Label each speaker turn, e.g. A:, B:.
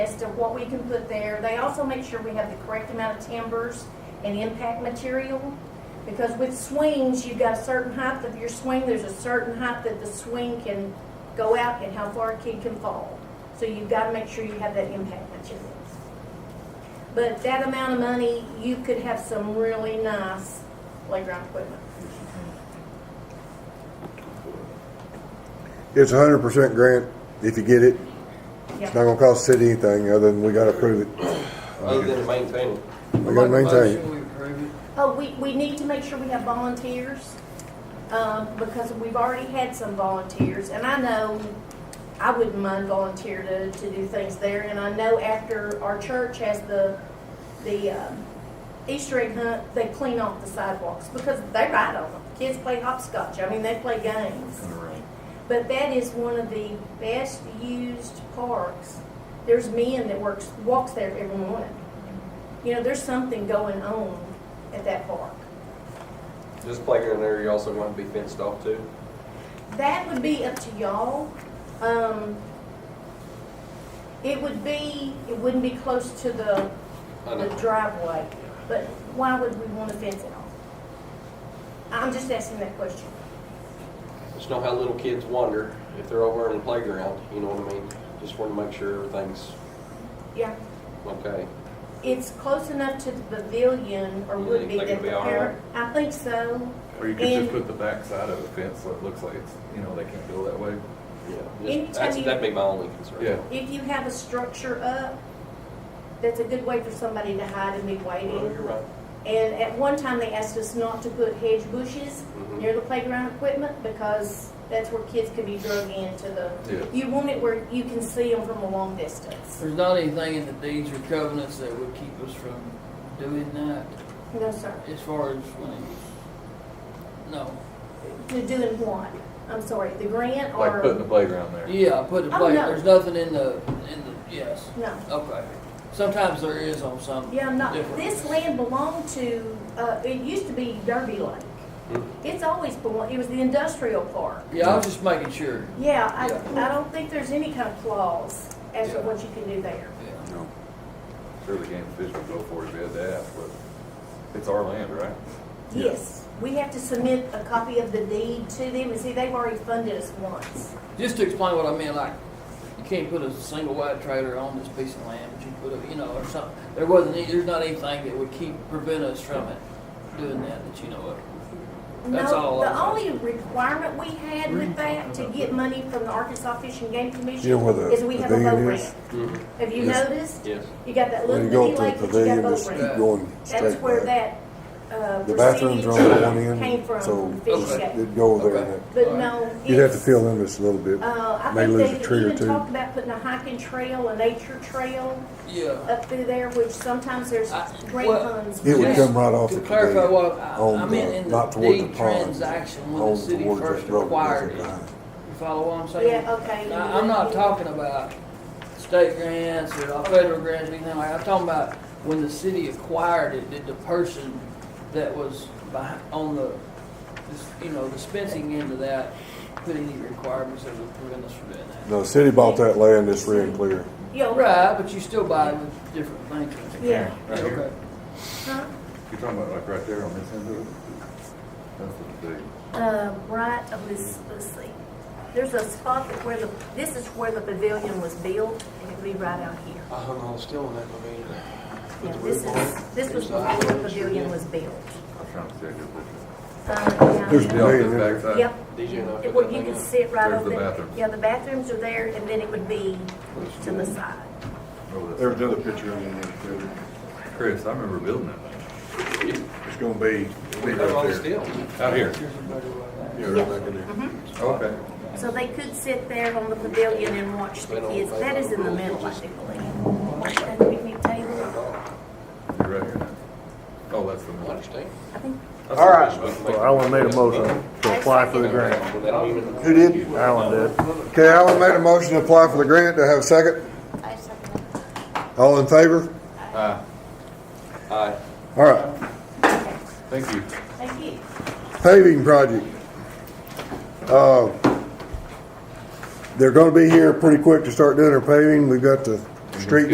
A: as to what we can put there. They also make sure we have the correct amount of timbers and impact material. Because with swings, you've got a certain height of your swing, there's a certain height that the swing can go out and how far a kid can fall. So you've got to make sure you have that impact material. But that amount of money, you could have some really nice playground equipment.
B: It's a hundred percent grant if you get it. It's not
A: Yeah.
B: gonna cost the city anything other than we gotta approve it.
C: other than maintaining.
B: We gotta maintain it.
D: Motion, we approve it.
A: Oh, we, we need to make sure we have volunteers, um, because we've already had some volunteers. And I know, I wouldn't mind volunteer to, to do things there. And I know after our church has the, the um, Easter egg hunt, they clean off the sidewalks, because they ride on them. Kids play hopscotch, I mean, they play games. But that is one of the best used parks. There's men that works, walks there every morning. You know, there's something going on at that park.
C: This playground area also want to be fenced off too.
A: That would be up to y'all. Um, it would be, it wouldn't be close to the,
C: I
A: the
C: know.
A: driveway, but why would we want to fence it off? I'm just asking that question.
C: Just know how little kids wander if they're over in the playground, you know what I mean? Just want to make sure everything's
A: Yeah,
C: okay.
A: it's close enough to the pavilion, or
C: You
A: would
C: think
A: be
C: it'd
A: that the
C: be all
A: parent, I think so.
E: Or you could just
A: And-
E: put the backside of a fence so it looks like it's, you know, they can't go that way.
C: Yeah,
A: Anytime
C: just- that's-
A: you-
C: that'd be my only concern.
E: Yeah.
A: If you have a structure up, that's a good way for somebody to hide and be waiting.
C: Well, you're right.
A: And at one time, they asked us not to put hedge bushes
C: Mhm.
A: near the playground equipment because that's where kids could be drug into the,
E: Yeah.
A: you want it where you can see them from a long distance.
D: There's not anything in the deeds or covenants that would keep us from doing that
A: No, sir.
D: as far as when it was, no.
A: You're doing what? I'm sorry, the grant
E: Like putting the
A: or?
E: playground there.
D: Yeah, put it,
A: Oh,
D: play-
A: no.
D: there's nothing in the, in the, yes,
A: No.
D: okay. Sometimes there is on some.
A: Yeah, no,
D: different-
A: this land belonged to, uh, it used to be Derby Lake.
C: Mhm.
A: It's always belonged, it was the industrial park.
D: Yeah, I was just making sure,
A: Yeah, I,
C: Yeah.
A: I don't think there's any kind of clause as to
D: Yeah.
A: what you can do there.
D: yeah.
E: Sure, the game fish would go for it if they had to ask, but it's our land, right?
B: Yeah.
A: Yes, we have to submit a copy of the deed to them, and see, they've already funded us once.
D: Just to explain what I meant, like, you can't put a single white trailer on this piece of land, but you put a, you know, or something. There wasn't, any- there's not anything that would keep, prevent us from it, doing that, that you know of. That's all
A: No,
D: I
A: the
D: was
A: only requirement we had with that to get money from the Arkansas Fish and Game
B: You know
A: Commission
B: where the
A: is we have a
B: pavilion
A: low
B: is?
A: rent.
C: Mhm.
A: Have you
B: Yes.
A: noticed?
C: Yes.
A: You got that
B: When
A: little
B: you go
A: bitty
B: up to
A: lake,
B: the
A: but you got
B: pavilion,
A: low
B: just
A: rent.
B: keep going
A: That's
B: straight
A: where
B: back.
A: that, uh,
B: The bathrooms
A: proceeding
B: are on one
A: came
B: end,
A: from,
B: so
A: from Fish and Game.
B: it'd go over there.
D: Okay.
B: and it-
A: But no,
B: You'd have to
A: it's-
B: fill in this a little bit.
A: Uh, I
B: May
A: think
B: lose
A: they
B: a tree or
A: even
B: two.
A: talked about putting a hiking trail, a nature trail
D: Yeah.
A: up through there, which sometimes there's
D: I-
A: great
D: well,
A: funds.
B: It would
D: Yes.
B: come right off
D: To
B: the
D: clarify
B: pavilion,
D: what I, I
B: on
D: meant
B: the,
D: in
B: not
D: the
B: toward the
D: deed
B: pond.
D: transaction when the
B: on
D: city
B: towards
D: first
B: that road that goes
D: acquired
B: up
D: it.
B: behind.
D: You follow what I'm saying?
A: Yeah, okay.
D: Now, I'm not talking about state grants or federal grants or anything like, that. I'm talking about when the city acquired it, did the person that was behind, on the, this- you know, dispensing into that, put any requirements that would prevent us from doing that?
B: No, the city bought that land, it's free and clear.
A: Yeah,
D: Right, but you still buy it with different thinking.
A: Yeah.
E: Right here.
D: Okay.
A: Huh?
E: You're talking about like right there on this end of it? That's what the deed.
A: Uh, right of this, let's see. There's a spot that where the, this is where the pavilion was built, and it'd be right out here.
C: I hung on still in that pavilion.
A: Yeah, this is, this was before the pavilion was built.
E: I was trying to see if it
A: Uh,
B: There's a
A: yeah.
B: pavilion
E: was. Yeah, on this
B: there.
F: Uh,
E: backside.
A: Yep,
C: DJ and I
A: It-
C: took
A: where
C: that
A: you
C: thing
A: can
C: out.
A: sit right
E: There's
A: over
E: the
A: there.
E: bathrooms.
A: Yeah, the bathrooms are there, and then it would be to the side.
E: Oh, that's-
F: There was another picture on there too.
E: Chris, I remember building that thing.
F: It's gonna be.
C: We
F: right
C: hung on
F: there.
C: still.
E: Out here.
D: Here's a better way.
F: Yeah, right back in there.
E: Oh, Okay.
A: So they could sit there on the pavilion and watch the kids. That is in the middle, I think, believe. That picnic table,
E: You're right here now. Oh, that's the one.
C: Understand?
A: I think
C: All right.
G: Well, Alan made a motion to apply for the grant.
B: Who did?
G: Alan did.
B: Okay, Alan made a motion to apply for the grant, do I have a second?
H: I second that.
B: All in favor?
E: Uh,
C: Aye.
B: All right,
E: thank you.
A: Thank you.
B: paving project. Uh, They're gonna be here pretty quick to start doing their paving, we've got the street